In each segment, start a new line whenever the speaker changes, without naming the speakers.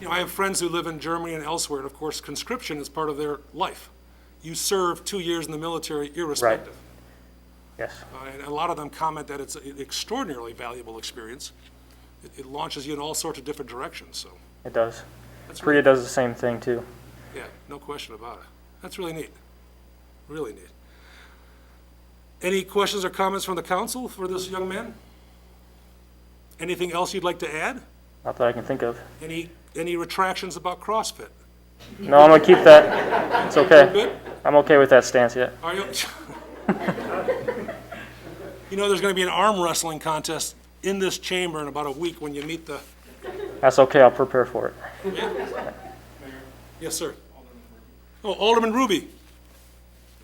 you know, I have friends who live in Germany and elsewhere, and of course, conscription is part of their life. You serve two years in the military irrespective.
Yes,
Uh, And a lot of them comment that it's an extraordinarily valuable experience. It- It launches you in all sorts of different directions, so,
it does.
That's
Korea does the same thing too.
yeah, no question about it. That's really neat, really neat. Any questions or comments from the council for this young man? Anything else you'd like to add?
Not that I can think of.
Any, any retractions about CrossFit?
No, I'm gonna keep that. It's okay.
Good?
I'm okay with that stance yet.
Are you? You know, there's going to be an arm wrestling contest in this chamber in about a week when you meet the,
That's okay. I'll prepare for it.
yes, sir. Oh, Alderman Ruby.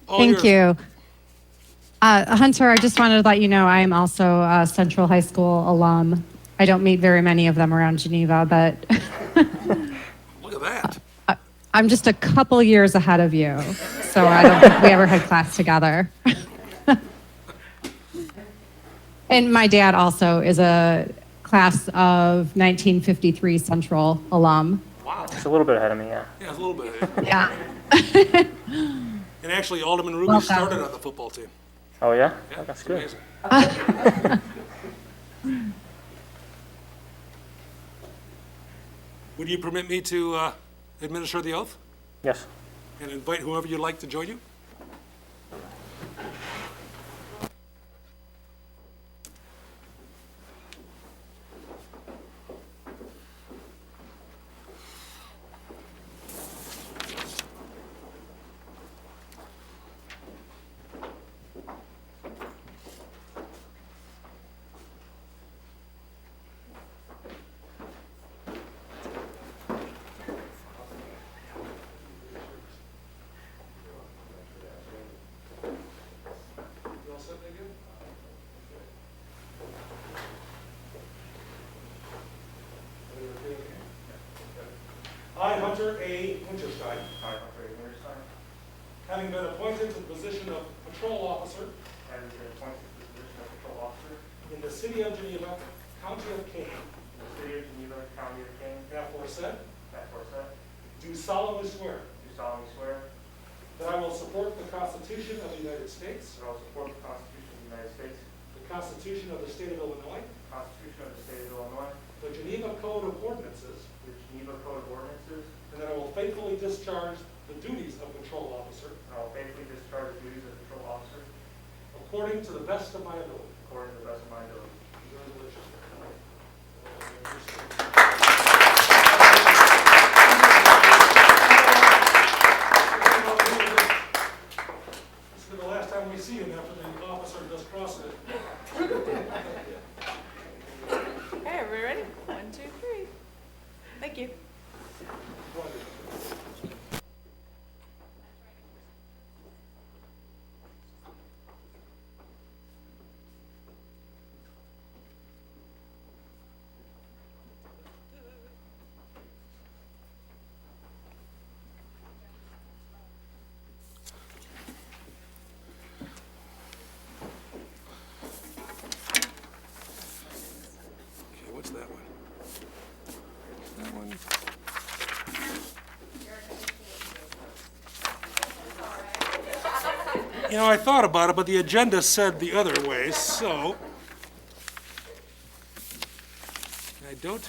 All
Thank
yours.
you. Uh, Hunter, I just wanted to let you know I am also a Central High School alum. I don't meet very many of them around Geneva, but
Look at that.
I'm just a couple years ahead of you. So I don't think we ever had class together. and my dad also is a class of 1953 Central alum.
Wow.
It's a little bit ahead of me, yeah.
Yeah, it's a little bit.
Yeah.
And actually, Alderman Ruby
Well done.
started on the football team.
Oh yeah,
Yeah,
that's
it's
good.
amazing. Would you permit me to uh, administer the oath
Yes.
and invite whoever you'd like to join you? I, Hunter A. Winterstein.
I, Humphrey Winterstein,
Having been appointed to the position of patrol officer
having been appointed to the position of patrol officer in
in the city of Geneva, county of Kane,
the city of Geneva, county of Kane,
aforesaid,
aforesaid,
do solemnly swear
do solemnly swear
that I will support the Constitution of the United States,
that I will support the Constitution of the United States,
the Constitution of the state of Illinois,
the Constitution of the state of Illinois,
the Geneva Code of Ordinances,
the Geneva Code of Ordinances,
and that I will faithfully discharge the duties of patrol officer
and I will faithfully discharge the duties of patrol officer
according to the best of my ability.
according to the best of my ability.
This is the last time we see him after the officer does CrossFit.
Okay, are we ready? One, two, three. Thank you.
Okay, what's that one? That one? You know, I thought about it, but the agenda said the other way, so. I don't,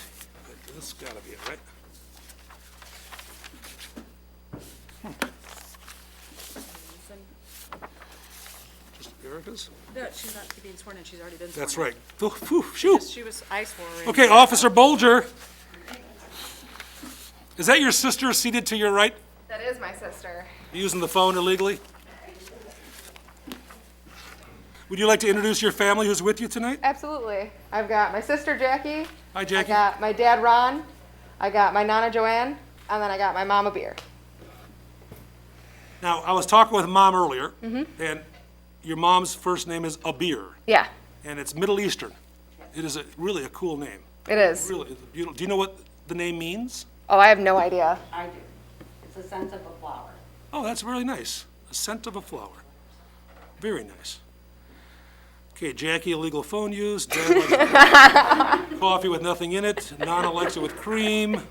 this has gotta be it, right? Just Erica's?
No, she's not being sworn in, she's already been sworn in.
That's right. Phew, phew, phew.
She was, I swore her in.
Okay, Officer Bolger. Is that your sister seated to your right,
That is my sister.
using the phone illegally? Would you like to introduce your family who's with you tonight?
Absolutely. I've got my sister Jackie.
Hi,
I
Jackie.
got my dad Ron. I got my nana Joanne, and then I got my mama Beer.
Now, I was talking with Mom earlier,
Mm-hmm.
and your mom's first name is Abir,
Yeah,
and it's Middle Eastern. It is a- really a cool name.
it is.
Really, it's beautiful. Do you know what the name means?
Oh, I have no idea.
I do. It's a sense of a flower.
Oh, that's really nice. A scent of a flower. Very nice. Okay, Jackie, illegal phone use. Dan likes coffee with nothing in it. Non Alexa with cream.